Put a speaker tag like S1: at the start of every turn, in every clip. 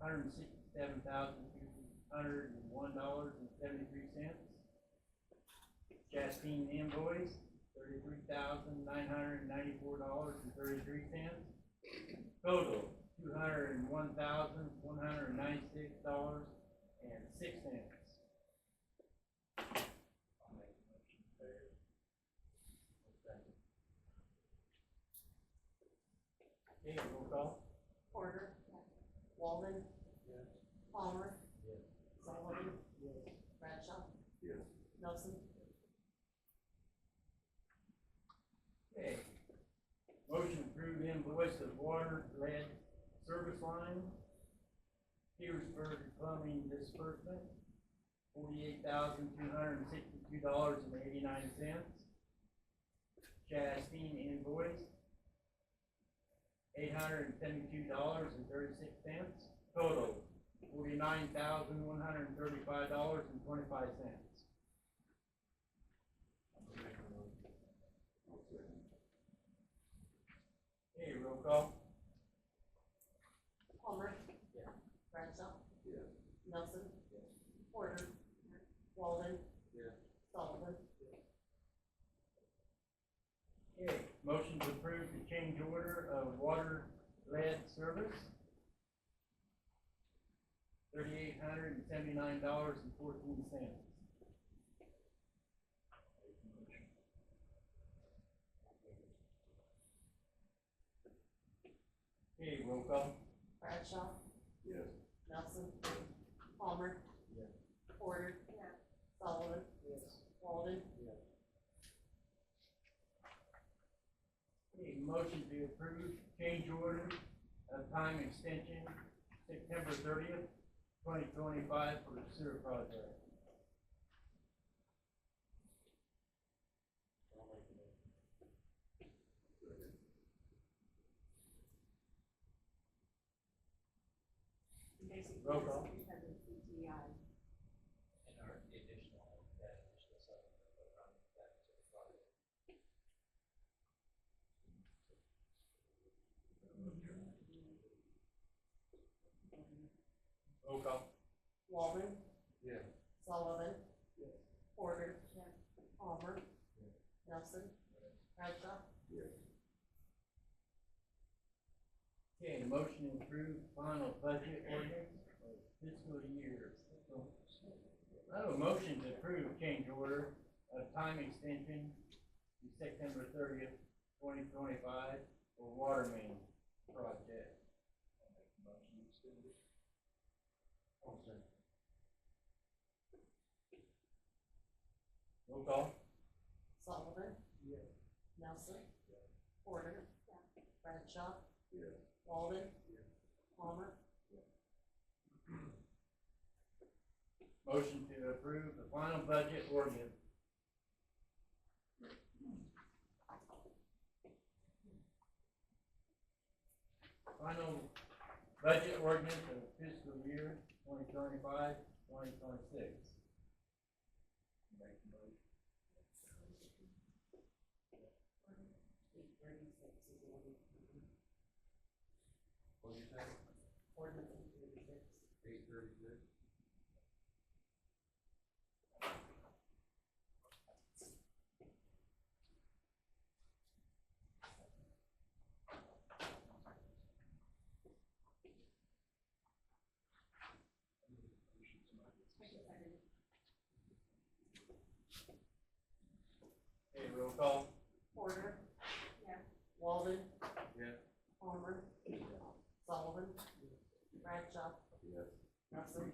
S1: hundred and sixty-seven thousand, hundred and one dollars and seventy-three cents. Chastain invoice, thirty-three thousand, nine hundred and ninety-four dollars and thirty-three cents. Total, two hundred and one thousand, one hundred and ninety-six dollars and six cents. Okay, roll call.
S2: Porter. Walden.
S1: Yes.
S2: Palmer.
S1: Yes.
S2: Sullivan. Bradshaw.
S3: Yes.
S2: Nelson.
S1: Okay. Motion to approve invoice of water lead service line. Petersburg plumbing disbursement, forty-eight thousand two hundred and sixty-two dollars and eighty-nine cents. Chastain invoice, eight hundred and seventy-two dollars and thirty-six cents. Total, forty-nine thousand one hundred and thirty-five dollars and twenty-five cents.
S3: I'll second.
S1: Okay, roll call.
S2: Palmer.
S1: Yeah.
S2: Bradshaw.
S3: Yes.
S2: Nelson. Porter. Walden. Sullivan.
S1: Okay, motion to approve the change order of water lead service. Thirty-eight hundred and seventy-nine dollars and fourteen cents. Okay, roll call.
S2: Bradshaw.
S3: Yes.
S2: Nelson. Palmer.
S1: Yeah.
S2: Porter. Sullivan. Walden.
S1: Okay, motion to approve change order of time extension September thirtieth, twenty twenty-five for the sewer project.
S3: Second.
S4: Basically,
S1: Roll call.
S4: it's because of CTI.
S5: And our the additional, that additional supplement that run that to the project.
S1: Roll call.
S2: Walden.
S3: Yeah.
S2: Sullivan.
S1: Yes.
S2: Porter. Palmer. Nelson.
S5: Yes.
S2: Bradshaw.
S3: Yes.
S1: Okay, motion to approve final budget ordinance for fiscal year. Oh, motion to approve change order of time extension to September thirtieth, twenty twenty-five for water main project. Roll call.
S2: Sullivan. Nelson. Porter. Bradshaw.
S3: Yes.
S2: Walden. Palmer.
S1: Motion to approve the final budget ordinance. Final budget ordinance of fiscal year 2025-2026.
S2: Eight thirty-six is the ordinance.
S5: What'd you say?
S2: Ordinance eight thirty-six.
S5: Eight thirty-six?
S1: Okay, roll call.
S2: Porter.
S4: Yeah.
S2: Walden.
S1: Yeah.
S2: Palmer. Sullivan. Bradshaw.
S3: Yes.
S2: Nelson.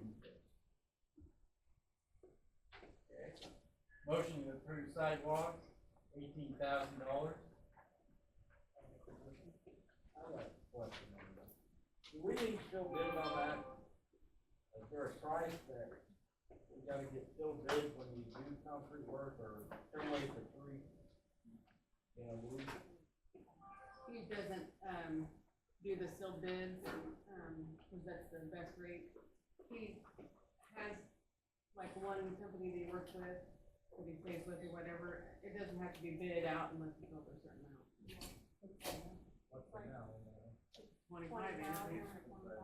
S1: Okay. Motion to approve sidewalks, eighteen thousand dollars.
S6: I have a question on that. Do we need to still bid on that? Is there a price that we gotta get still bid when we do concrete work or somebody for free? You know, we,
S7: He doesn't, um, do the sealed bids, um, cause that's the best rate. He has like one company that he works with, that he stays with or whatever, it doesn't have to be bid out unless it's over a certain amount.
S6: what's the now? you know?
S7: Twenty-five,
S4: Twenty
S7: I think.
S4: thousand.